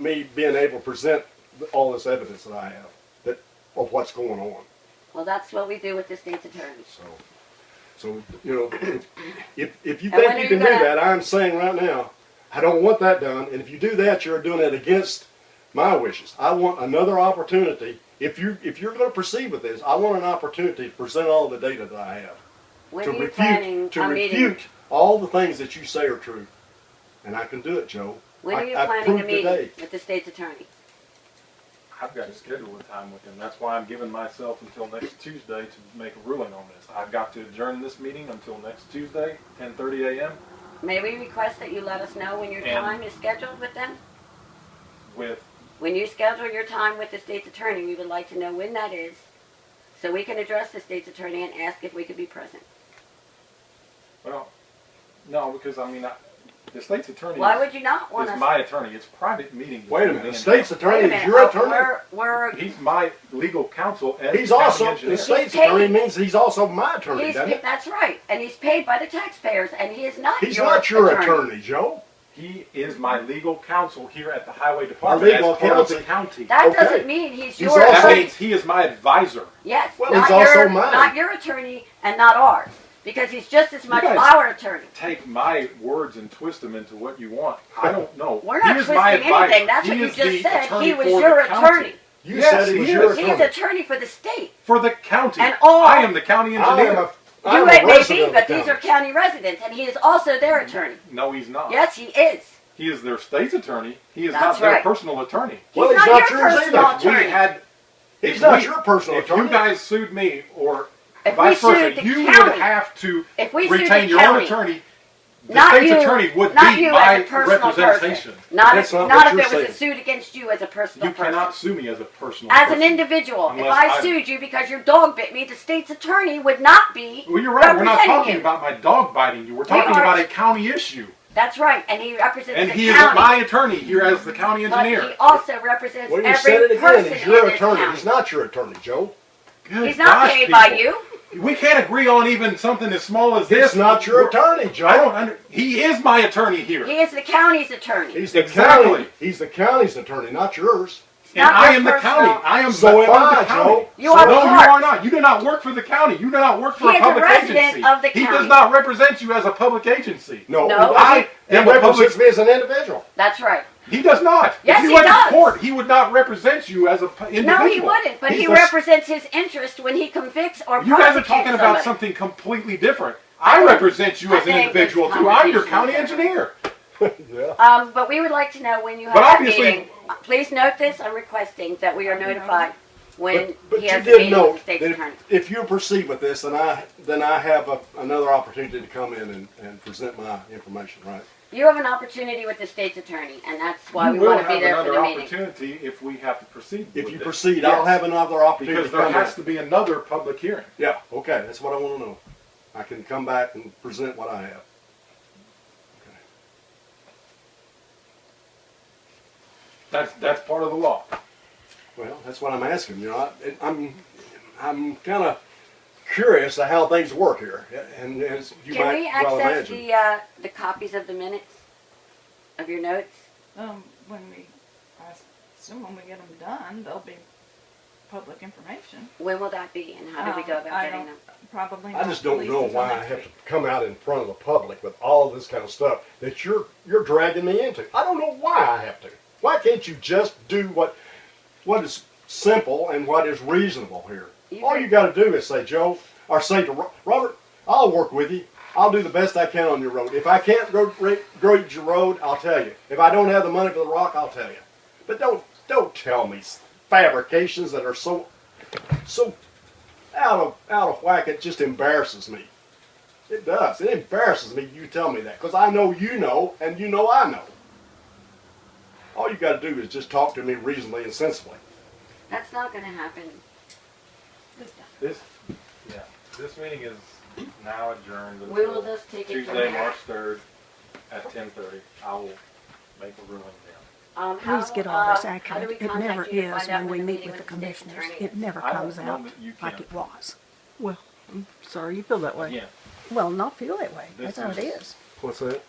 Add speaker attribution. Speaker 1: me being able to present all this evidence that I have that of what's going on.
Speaker 2: Well, that's what we do with the state's attorney.
Speaker 1: So, so you know, if if you think
Speaker 2: And when
Speaker 1: you
Speaker 2: are
Speaker 1: can
Speaker 2: you
Speaker 1: do
Speaker 2: gonna-
Speaker 1: that, I'm saying right now, I don't want that done. And if you do that, you're doing it against my wishes. I want another opportunity. If you if you're going to proceed with this, I want an opportunity to present all the data that I have
Speaker 2: When
Speaker 1: to
Speaker 2: are you planning
Speaker 1: refute to
Speaker 2: a meeting?
Speaker 1: refute all the things that you say are true. And I can do it, Joe.
Speaker 2: When
Speaker 1: I,
Speaker 2: are you
Speaker 1: I
Speaker 2: planning a
Speaker 1: proved today.
Speaker 2: meeting with the state's attorney?
Speaker 3: I've got to schedule a time with him. That's why I'm giving myself until next Tuesday to make a ruling on this. I've got to adjourn this meeting until next Tuesday, 10:30 a.m.
Speaker 2: May we request that you let us know when your
Speaker 3: And-
Speaker 2: time is scheduled with them?
Speaker 3: with
Speaker 2: When you schedule your time with the state's attorney, we would like to know when that is, so we can address the state's attorney and ask if we could be present.
Speaker 3: well, no, because I mean, I, the state's attorney
Speaker 2: Why
Speaker 3: is-
Speaker 2: would you not want
Speaker 3: is
Speaker 2: us?
Speaker 3: my attorney. It's private meeting.
Speaker 1: Wait a minute. The state's
Speaker 2: Wait a
Speaker 1: attorney is
Speaker 2: minute,
Speaker 1: your
Speaker 2: oh,
Speaker 1: attorney.
Speaker 2: We're, we're, he's,
Speaker 3: He's my legal counsel and
Speaker 1: He's
Speaker 3: county
Speaker 1: also
Speaker 3: engineer.
Speaker 1: the state's
Speaker 2: He's paid.
Speaker 1: attorney means he's also my attorney, doesn't
Speaker 2: pa-
Speaker 1: it?
Speaker 2: that's right, and he's paid by the taxpayers, and he is not
Speaker 1: He's
Speaker 2: your
Speaker 1: not your attorney, Joe.
Speaker 3: He is my legal counsel here at the highway department
Speaker 1: legal
Speaker 3: as part of the
Speaker 1: counsel.
Speaker 3: county.
Speaker 2: That
Speaker 1: Okay.
Speaker 2: doesn't mean he's
Speaker 1: He's
Speaker 2: your
Speaker 1: also-
Speaker 3: That
Speaker 2: attorney.
Speaker 3: means he is my advisor.
Speaker 2: Yes,
Speaker 1: Well,
Speaker 2: not
Speaker 1: he's also
Speaker 2: your,
Speaker 1: mine.
Speaker 2: not your attorney and not ours, because he's just as much
Speaker 3: guys-
Speaker 2: our attorney.
Speaker 3: Take my words and twist them into what you want. I don't know.
Speaker 2: We're
Speaker 3: He
Speaker 2: not
Speaker 3: is my
Speaker 2: twisting
Speaker 3: advisor.
Speaker 2: anything. That's
Speaker 3: He
Speaker 2: what you
Speaker 3: is
Speaker 2: just
Speaker 3: the
Speaker 2: said. He
Speaker 3: attorney
Speaker 2: was
Speaker 3: for
Speaker 2: your
Speaker 3: the county.
Speaker 2: attorney.
Speaker 1: You
Speaker 3: Yes,
Speaker 1: said he
Speaker 3: he
Speaker 1: was your
Speaker 3: is.
Speaker 2: He's
Speaker 1: attorney.
Speaker 2: attorney for the state.
Speaker 3: For the county.
Speaker 2: And all-
Speaker 3: I am the county
Speaker 1: I
Speaker 3: engineer.
Speaker 1: am a, I
Speaker 2: You
Speaker 1: am
Speaker 2: may
Speaker 1: a
Speaker 2: may
Speaker 1: resident
Speaker 2: be,
Speaker 1: of the
Speaker 2: but these are
Speaker 1: county.
Speaker 2: county residents, and he is also their attorney.
Speaker 3: No, he's not.
Speaker 2: Yes, he is.
Speaker 3: He is their state's attorney. He is
Speaker 2: That's
Speaker 3: not their
Speaker 2: right.
Speaker 3: personal attorney.
Speaker 1: Well,
Speaker 2: he's
Speaker 1: he's
Speaker 2: not
Speaker 1: not
Speaker 2: your
Speaker 1: yours
Speaker 2: personal
Speaker 1: either.
Speaker 3: If we
Speaker 2: attorney.
Speaker 3: had,
Speaker 1: He's
Speaker 3: if
Speaker 1: not
Speaker 3: we-
Speaker 1: your personal
Speaker 3: if
Speaker 1: attorney.
Speaker 3: you guys sued me or
Speaker 2: If
Speaker 3: vice
Speaker 2: we sued
Speaker 3: versa,
Speaker 2: the
Speaker 3: you would
Speaker 2: county-
Speaker 3: have to
Speaker 2: If we sued
Speaker 3: retain
Speaker 2: the
Speaker 3: your own
Speaker 2: county,
Speaker 3: attorney. The
Speaker 2: not
Speaker 3: state's
Speaker 2: you,
Speaker 3: attorney would
Speaker 2: not
Speaker 3: be
Speaker 2: you
Speaker 3: my
Speaker 2: as a personal
Speaker 3: representation.
Speaker 2: person. Not if,
Speaker 1: That's
Speaker 2: not,
Speaker 1: not what
Speaker 2: if
Speaker 1: you're
Speaker 2: it was a suit against you as a personal
Speaker 3: You
Speaker 2: person.
Speaker 3: cannot sue me as a personal
Speaker 2: as
Speaker 3: person.
Speaker 2: an individual, if
Speaker 3: Unless
Speaker 2: I
Speaker 3: I-
Speaker 2: sued you because your dog bit me, the state's attorney would not be.
Speaker 3: Well, you're right. We're not
Speaker 2: representing
Speaker 3: talking
Speaker 2: you.
Speaker 3: about my dog biting you. We're talking
Speaker 2: are-
Speaker 3: about a county issue.
Speaker 2: That's right, and he represents
Speaker 3: And
Speaker 2: the
Speaker 3: he is
Speaker 2: county.
Speaker 3: my attorney here as the county
Speaker 2: but
Speaker 3: engineer.
Speaker 2: he also represents
Speaker 1: Well, you
Speaker 2: every
Speaker 1: said it again.
Speaker 2: person
Speaker 1: He's
Speaker 2: in
Speaker 1: your
Speaker 2: this
Speaker 1: attorney.
Speaker 2: county.
Speaker 1: He's not your attorney, Joe.
Speaker 3: Good
Speaker 2: He's not
Speaker 3: gosh,
Speaker 2: paid by
Speaker 3: people.
Speaker 2: you.
Speaker 3: We can't agree on even something as small as this.
Speaker 1: He's not your
Speaker 3: We're-
Speaker 1: attorney,
Speaker 3: I don't
Speaker 1: Joe.
Speaker 3: under. He is my attorney here,
Speaker 2: He is the county's attorney.
Speaker 1: He's the
Speaker 3: Exactly.
Speaker 1: county. He's the county's attorney, not yours.
Speaker 3: and
Speaker 2: not
Speaker 3: I
Speaker 2: your
Speaker 3: am the
Speaker 2: personal-
Speaker 3: county. I am
Speaker 1: So
Speaker 3: the
Speaker 1: am
Speaker 3: part of
Speaker 1: I,
Speaker 3: the county.
Speaker 1: Joe.
Speaker 2: You are
Speaker 3: no,
Speaker 2: part.
Speaker 3: you are not. You do not work for the county. You do not work for
Speaker 2: He is
Speaker 3: a
Speaker 2: a
Speaker 3: public
Speaker 2: resident
Speaker 3: agency.
Speaker 2: of the
Speaker 3: he
Speaker 2: county.
Speaker 3: does not represent you as a public agency.
Speaker 1: No,
Speaker 2: No.
Speaker 1: I
Speaker 3: I am
Speaker 1: am
Speaker 3: a
Speaker 1: represents
Speaker 3: public-
Speaker 1: me as an individual.
Speaker 2: That's right.
Speaker 3: He does not.
Speaker 2: Yes,
Speaker 3: if you
Speaker 2: he
Speaker 3: went
Speaker 2: does.
Speaker 3: to court, he would not represent you as a pu- individual.
Speaker 2: No, he wouldn't, but
Speaker 3: He's
Speaker 2: he
Speaker 3: the-
Speaker 2: represents his interest when he convicts or
Speaker 3: You guys are
Speaker 2: prosecutes
Speaker 3: talking about
Speaker 2: somebody.
Speaker 3: something completely different.
Speaker 2: I
Speaker 3: I
Speaker 2: think-
Speaker 3: represent you
Speaker 2: I
Speaker 3: as an
Speaker 2: think this
Speaker 3: individual too. I'm your
Speaker 2: conversation
Speaker 3: county
Speaker 2: is different.
Speaker 3: engineer.
Speaker 1: Yeah.
Speaker 2: Um, but we would like to know when you have
Speaker 3: But
Speaker 2: that
Speaker 3: obviously-
Speaker 2: meeting. Please note this, I'm requesting that we are notified when
Speaker 1: But, but
Speaker 2: he
Speaker 1: you
Speaker 2: has a meeting
Speaker 1: did
Speaker 2: with
Speaker 1: note
Speaker 2: the
Speaker 1: that
Speaker 2: state's
Speaker 1: if,
Speaker 2: attorney.
Speaker 1: if you proceed with this, then I, then I have a, another opportunity to come in and, and present my information, right?
Speaker 2: You have an opportunity with the state's attorney, and that's why we
Speaker 3: will
Speaker 2: want to be
Speaker 3: have
Speaker 2: there for
Speaker 3: another
Speaker 2: the meeting.
Speaker 3: opportunity if we have to proceed.
Speaker 1: If
Speaker 3: with
Speaker 1: you
Speaker 3: this.
Speaker 1: proceed,
Speaker 3: Yes.
Speaker 1: I'll have another opportunity
Speaker 3: because
Speaker 1: to
Speaker 3: there
Speaker 1: come
Speaker 3: has
Speaker 1: in.
Speaker 3: to be another public hearing.
Speaker 1: Yeah, okay, that's what I wanna know. I can come back and present what I have.
Speaker 3: That's that's part of the law.
Speaker 1: Well, that's what I'm asking, you know, I, it- I'm, I'm kinda curious to how things work here, and as you
Speaker 2: Can
Speaker 1: might
Speaker 2: we
Speaker 1: well
Speaker 2: access
Speaker 1: imagine.
Speaker 2: the, uh, the copies of the minutes of your notes?
Speaker 4: Um, when we, I assume when we get them done, they'll be public information.
Speaker 2: When will that be, and how do we go
Speaker 5: Oh,
Speaker 4: Um,
Speaker 2: about
Speaker 4: I
Speaker 2: getting
Speaker 4: don't-
Speaker 2: them?
Speaker 4: Probably.
Speaker 1: I
Speaker 4: not
Speaker 1: just don't
Speaker 4: released
Speaker 1: know
Speaker 4: until
Speaker 1: why I
Speaker 4: next
Speaker 1: have to
Speaker 4: week.
Speaker 1: come out in front of the public with all this kind of stuff that you're you're dragging me into. I don't know why I have to. Why can't you just do what what is simple and what is reasonable here?
Speaker 2: You
Speaker 1: all
Speaker 2: can-
Speaker 1: you got to do is say, Joe, or say to Ro- Robert, I'll work with you. I'll do the best I can on your road. If I can't gro- re- grade your road, I'll tell you. If I don't have the money for the rock, I'll tell you. But don't don't tell me s- fabrications that are so so out of out of whack. It just embarrasses me. It does. It embarrasses me. You tell me that because I know you know, and you know I know. All you got to do is just talk to me reasonably and sensibly.
Speaker 2: That's not gonna happen.
Speaker 3: This, yeah, this meeting is now adjourned
Speaker 2: We will
Speaker 3: until
Speaker 2: just take it from
Speaker 3: Tuesday,
Speaker 2: there.
Speaker 3: March third, at ten thirty. I will make a ruling then.
Speaker 2: Um, how-
Speaker 5: Please get all this
Speaker 2: uh, how do
Speaker 5: accurate.
Speaker 2: we
Speaker 5: It
Speaker 2: contact
Speaker 5: never
Speaker 2: you to
Speaker 5: is
Speaker 2: find out
Speaker 5: when we
Speaker 2: the
Speaker 5: meet
Speaker 2: meeting
Speaker 5: with the
Speaker 2: with state's
Speaker 5: commissioners.
Speaker 2: attorney is?
Speaker 5: It never
Speaker 3: I don't
Speaker 5: comes
Speaker 3: know
Speaker 5: out
Speaker 3: that you
Speaker 5: like
Speaker 3: can.
Speaker 5: it was. Well, I'm sorry you feel that way.
Speaker 3: Again,
Speaker 5: Well, not feel that way.
Speaker 3: This
Speaker 5: That's how it
Speaker 3: is-
Speaker 5: is.
Speaker 1: What's that?